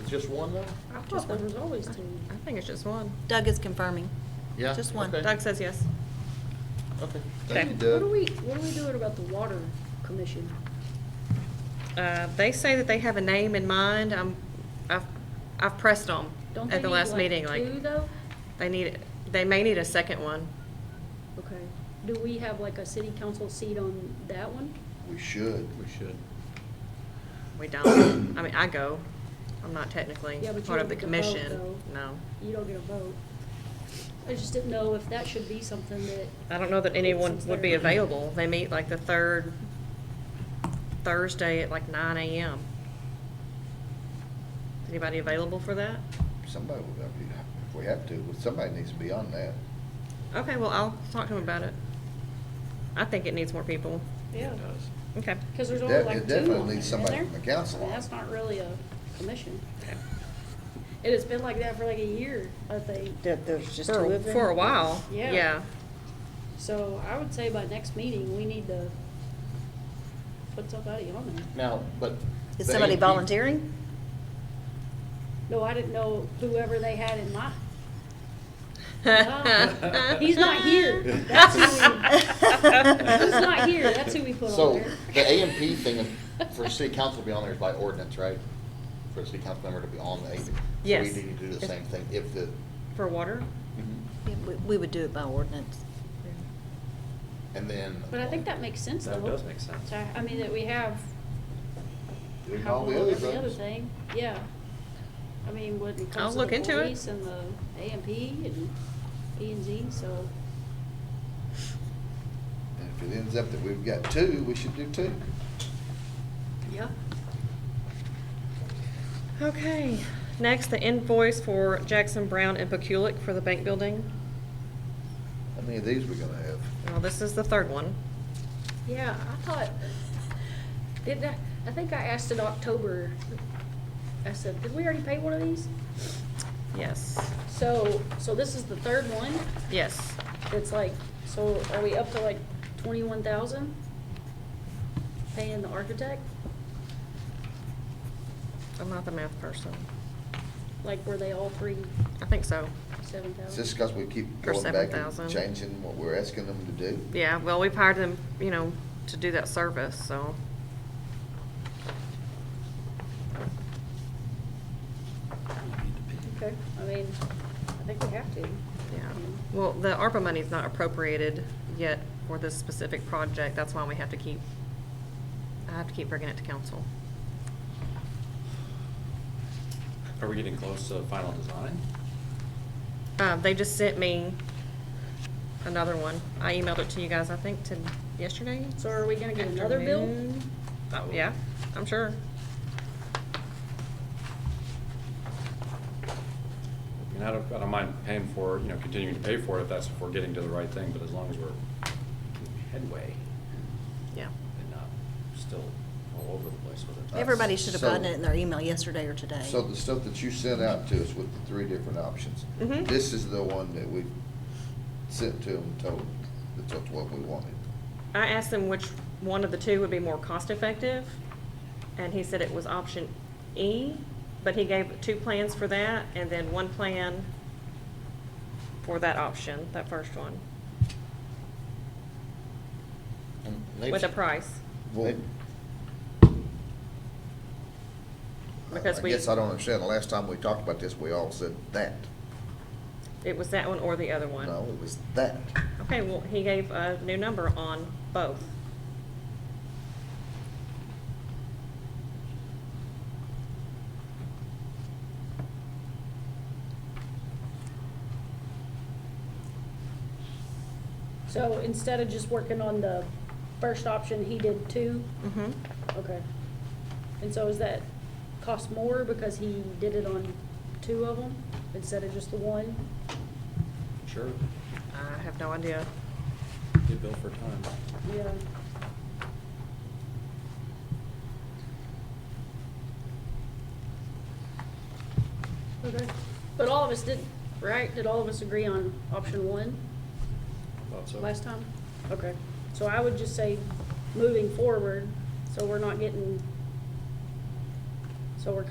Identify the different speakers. Speaker 1: It's just one though?
Speaker 2: I thought there was always two.
Speaker 3: I think it's just one.
Speaker 4: Doug is confirming.
Speaker 1: Yeah?
Speaker 4: Just one.
Speaker 1: Okay.
Speaker 3: Doug says yes.
Speaker 1: Okay.
Speaker 3: Okay.
Speaker 1: Thank you,
Speaker 2: What
Speaker 1: Doug.
Speaker 2: are we, what are we doing about the water commission?
Speaker 3: Uh, they say that they have a name in mind. i I've, I've pressed them
Speaker 2: Don't they
Speaker 3: at the
Speaker 2: need
Speaker 3: last
Speaker 2: like
Speaker 3: meeting, like,
Speaker 2: Two though?
Speaker 3: they need, they may need a second one.
Speaker 2: Okay. Do we have like a city council seat on that one?
Speaker 1: We should. We should.
Speaker 3: We don't. I mean, I go. I'm not technically
Speaker 2: Yeah, but you
Speaker 3: part of
Speaker 2: don't
Speaker 3: the
Speaker 2: get to vote,
Speaker 3: commission.
Speaker 2: though.
Speaker 3: No.
Speaker 2: You don't get a vote. I just didn't know if that should be something that,
Speaker 3: I don't know that anyone
Speaker 2: Since
Speaker 3: would be
Speaker 2: they're-
Speaker 3: available. They meet like the third Thursday at like nine AM. Anybody available for that?
Speaker 1: Somebody, would have to- if we have to, but somebody needs to be on that.
Speaker 3: Okay, well, I'll talk to him about it. I think it needs more people.
Speaker 2: yeah,
Speaker 3: Okay.
Speaker 2: because there's
Speaker 1: It
Speaker 2: only
Speaker 1: def-
Speaker 2: like
Speaker 1: it
Speaker 2: two on
Speaker 1: definitely
Speaker 2: there,
Speaker 1: needs
Speaker 2: isn't
Speaker 1: somebody
Speaker 2: there?
Speaker 1: from the council
Speaker 2: And
Speaker 1: on
Speaker 2: that's
Speaker 1: it.
Speaker 2: not really a commission.
Speaker 3: Okay.
Speaker 2: And it's been like that for like a year, I think.
Speaker 5: That there's just two
Speaker 3: For,
Speaker 5: of them?
Speaker 3: for a while.
Speaker 2: Yeah.
Speaker 3: Yeah.
Speaker 2: So I would say by next meeting, we need to put somebody on there.
Speaker 1: Now, but.
Speaker 4: Is
Speaker 1: the
Speaker 4: somebody
Speaker 1: 18th
Speaker 4: volunteering?
Speaker 2: No, I didn't know whoever they had in mind. No, Oh. He's not here. That's who we, he's not here. That's who we put on
Speaker 1: So,
Speaker 2: there.
Speaker 1: the A and P thing is- for city council to be on there is by ordinance, right? For a city council member to be on the A. and P. So
Speaker 3: Yes.
Speaker 1: We need to do the
Speaker 3: If-
Speaker 1: same thing if the,
Speaker 3: For water?
Speaker 1: Mm-hmm.
Speaker 4: Yeah, we- We would do it by ordinance.
Speaker 1: and then.
Speaker 2: But I think that makes sense though.
Speaker 6: That does make sense.
Speaker 2: So, I mean, that we have.
Speaker 1: Doing
Speaker 2: how
Speaker 1: all the
Speaker 2: we
Speaker 1: other
Speaker 2: look at The other
Speaker 1: things.
Speaker 2: thing, yeah. I mean, when it
Speaker 3: I'll
Speaker 2: comes to
Speaker 3: look
Speaker 2: the
Speaker 3: into it.
Speaker 2: police and the A and P and E and Z, so.
Speaker 1: And if it ends up that we've got two, we should do two.
Speaker 2: Yeah.
Speaker 3: Okay. Next, the invoice for Jackson Brown and Pekulik for the bank building.
Speaker 1: How many of these we gonna have?
Speaker 3: Well, this is the third one.
Speaker 2: Yeah, I thought, did I, I think I asked in October, I said, did we already pay one of these?
Speaker 3: Yes.
Speaker 2: So, so this is the third one,
Speaker 3: Yes.
Speaker 2: it's like, so are we up to like twenty-one thousand? Paying the architect,
Speaker 3: I'm not the math person.
Speaker 2: like were they all three
Speaker 3: I think so.
Speaker 2: seven thousand?
Speaker 1: Is this because we keep
Speaker 3: Or
Speaker 1: going back and
Speaker 3: 7,000.
Speaker 1: changing what we're asking them to do?
Speaker 3: Yeah, well, we've hired them, you know, to do that service, so.
Speaker 2: Okay, I mean, I think we have to.
Speaker 3: Yeah, well, the ARPA money's not appropriated yet for this specific project, that's why we have to keep, I have to keep bringing it to council.
Speaker 6: Are we getting close to final design?
Speaker 3: Uh, they just sent me another one, I emailed it to you guys, I think, to yesterday?
Speaker 2: So are we gonna get another bill?
Speaker 3: Afternoon. Uh, Yeah, I'm sure.
Speaker 6: I mean, I don't, I don't mind paying for, you know, continuing to pay for it if that's if we're getting to the right thing, but as long as we're making headway
Speaker 3: Yeah,
Speaker 6: and not still all over the place with it.
Speaker 4: Everybody should have
Speaker 1: Uh, So-
Speaker 4: gotten it in their email yesterday or today.
Speaker 1: So the stuff that you sent out to us with the three different options,
Speaker 3: Mhm.
Speaker 1: this is the one that we sent to them, told, that's what we wanted.
Speaker 3: I asked him which one of the two would be more cost-effective, and he said it was option E, but he gave two plans for that, and then one plan for that option, that first one, with a price.
Speaker 1: Well, I
Speaker 3: Because
Speaker 1: I
Speaker 3: we-
Speaker 1: guess I don't understand, the last time we talked about this, we all said that.
Speaker 3: It was that one or the other one?
Speaker 1: No, it was that.
Speaker 3: Okay, well, he gave a new number on both.
Speaker 2: So instead of just working on the first option, he did two?
Speaker 3: Mm-hmm.
Speaker 2: Okay. And so is that cost more because he did it on two of them instead of just the one?
Speaker 6: Sure,
Speaker 3: I have no idea.
Speaker 6: get billed for time.
Speaker 2: Yeah. Okay, but all of us did, right? Did all of us agree on option one
Speaker 6: Thought so.
Speaker 2: last time? Okay, so I would just say, moving forward, so we're not getting, so we're kind